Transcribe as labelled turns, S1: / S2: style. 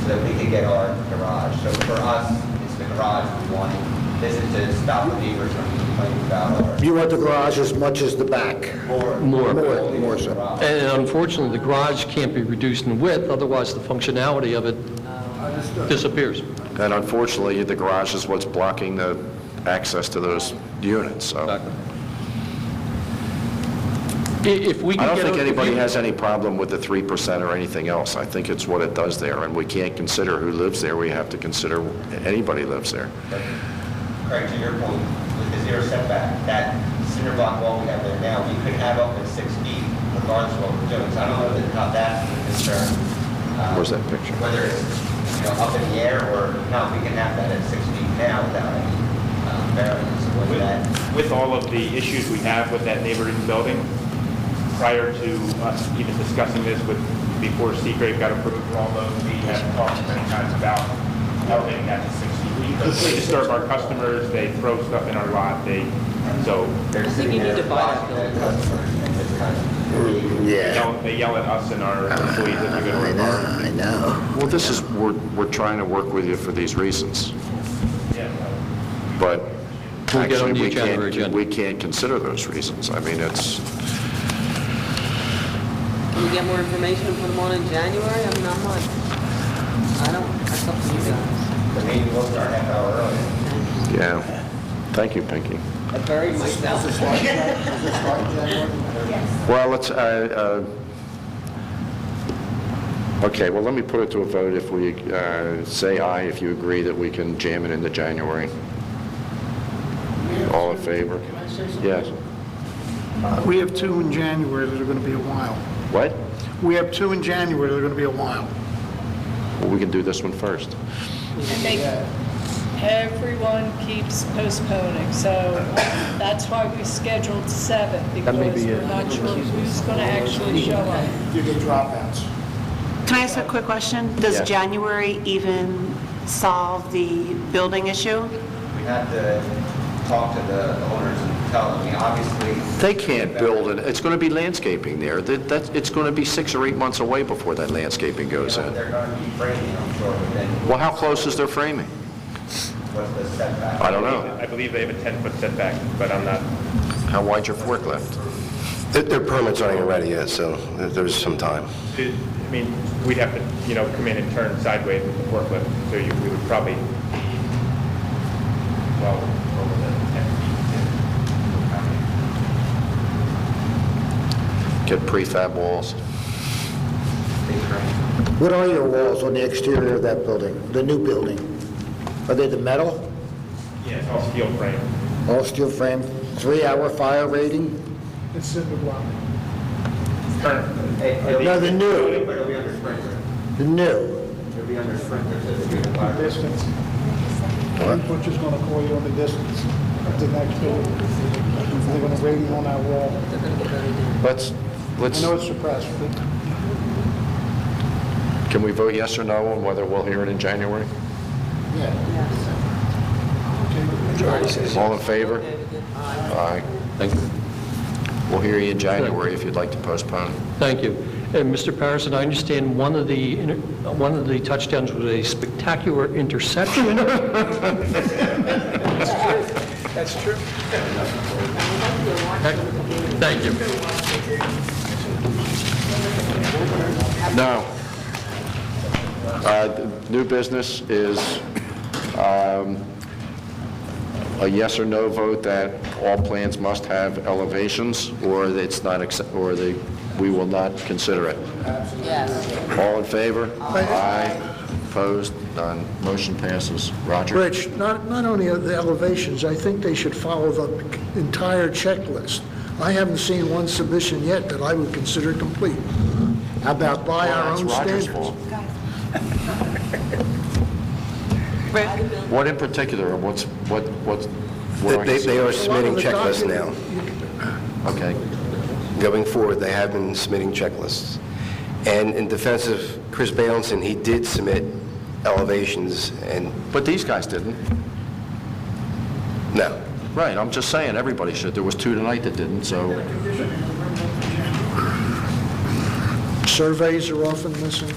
S1: so that we could get our garage. So for us, it's the garage we want. This is to stop the neighbors from complaining about our,
S2: You want the garage as much as the back?
S1: or.
S3: More.
S2: More,
S1: only
S2: more
S1: the
S2: so.
S1: garage.
S3: And unfortunately, the garage can't be reduced in width, otherwise the functionality of it disappears.
S4: And unfortunately, the garage is what's blocking the access to those units, so.
S3: I- If we
S4: I
S3: can
S4: don't
S3: get...
S4: think
S3: a-
S4: anybody has any problem with the 3% or anything else. I think it's what it does there, and we can't consider who lives there, we have to consider anybody lives there.
S1: Craig, to your point, with the zero setback, that cinder block wall we have there now, we could have up at six feet regardless of what we're doing. So I don't know that- how that's a concern. um,
S4: Where's that picture?
S1: Whether it's, you know, up in the air or not, we can have that at six feet now without any um, variance. So Whether that
S5: With with all of the issues we have with that neighboring building, prior to us even discussing this with, before Seagrave got approved for all those, we have talked many times about elevating that to 60 feet. We disturb our customers, they throw stuff in our lot, they, so,
S1: they're
S6: think
S1: sitting
S6: you need
S1: there
S6: to buy that
S1: blocking the customers and this kind of.
S5: they
S2: Yeah.
S5: yell- they yell at us and our employees if we go
S2: I
S5: to
S2: know,
S5: our bar.
S2: I know.
S4: Well, this is, we're, we're trying to work with you for these reasons, but
S3: We'll get on
S4: actually,
S3: the
S4: we
S3: agenda again.
S4: can't, we can't consider those reasons. I mean, it's,
S6: Can we get more information and put them on in January? I mean, I'm like, I don't, that's up to you guys.
S1: But maybe we'll start half hour early.
S4: yeah. Thank you, Pinky.
S6: I buried myself.
S4: Well, let's, uh, uh, okay, well, let me put it to a vote if we, uh, say aye if you agree that we can jam it into January. All in favor?
S7: Can I say something?
S4: Yes.
S7: Uh, We have two in January that are going to be a while.
S4: What?
S7: We have two in January that are going to be a while.
S4: Well, we can do this one first.
S8: I think everyone keeps postponing, so that's why we scheduled seven, because we're not sure who's going to actually show up.
S7: You get dropouts.
S9: Can I ask a quick question? Does
S4: Yes.
S9: January even solve the building issue?
S1: We have to talk to the owners and tell them, I mean, obviously.
S4: They can't build it, it's going to be landscaping there. That, that's, it's going to be six or eight months away before that landscaping
S1: You
S4: goes
S1: know,
S4: in.
S1: They're going to be framing, I'm sure, within
S4: Well, how close is their framing?
S1: what's the setback.
S4: I don't know.
S5: I believe they have a 10-foot setback, but I'm not
S4: How wide's your forklift?
S10: Their permits aren't ready yet, so there's some time.
S5: It- I mean, we'd have to, you know, come in and turn sideways with the forklift, so you, we would probably be well over the 10 feet.
S4: Get prefab walls.
S2: What are your walls on the exterior of that building, the new building? Are they the metal,
S5: Yeah, it's all steel frame.
S2: all steel frame, three-hour fire rating?
S7: It's cinder block.
S5: Current-
S1: It'll
S2: No, the new,
S1: it'll be under sprinkler.
S2: the new.
S1: It'll be under sprinkler, so it'll be a fire.
S7: Distance. Butcher's going to call you on the distance of the next building. They're going to rate you on that wall.
S6: They're gonna get buried down.
S4: Let's,
S7: I
S4: let's,
S7: know it's suppressed, but
S4: can we vote yes or no on whether we'll hear it in January?
S7: yeah.
S4: All in favor? Aye.
S3: Thank you.
S4: We'll hear you in January if you'd like to postpone.
S3: Thank you. And Mr. Patterson, I understand one of the, one of the touchdowns was a spectacular interception. That's true. Thank you.
S4: No. Uh, th- New business is um, a yes or no vote that all plans must have elevations, or it's not, accept- or they, we will not consider it.
S6: Yes.
S4: All in favor? Aye. Opposed? None. Motion passes. Roger?
S11: Rich, not, not only are the elevations, I think they should follow the entire checklist. I haven't seen one submission yet that I would consider complete. How about by our
S4: Oh, That's
S11: own
S4: Roger's
S11: standards?
S4: fault. What in particular, what's, what, what? what are
S10: They
S4: you
S10: they are
S11: A lot of
S10: submitting
S11: the
S10: checklists now.
S11: document-
S4: Okay.
S10: Going forward, they have been submitting checklists. And in defense of Chris Balanson, he did submit elevations, and
S4: But these guys didn't.
S10: no.
S4: Right, I'm just saying, everybody should. There was two tonight that didn't, so.
S11: Surveys are often missing.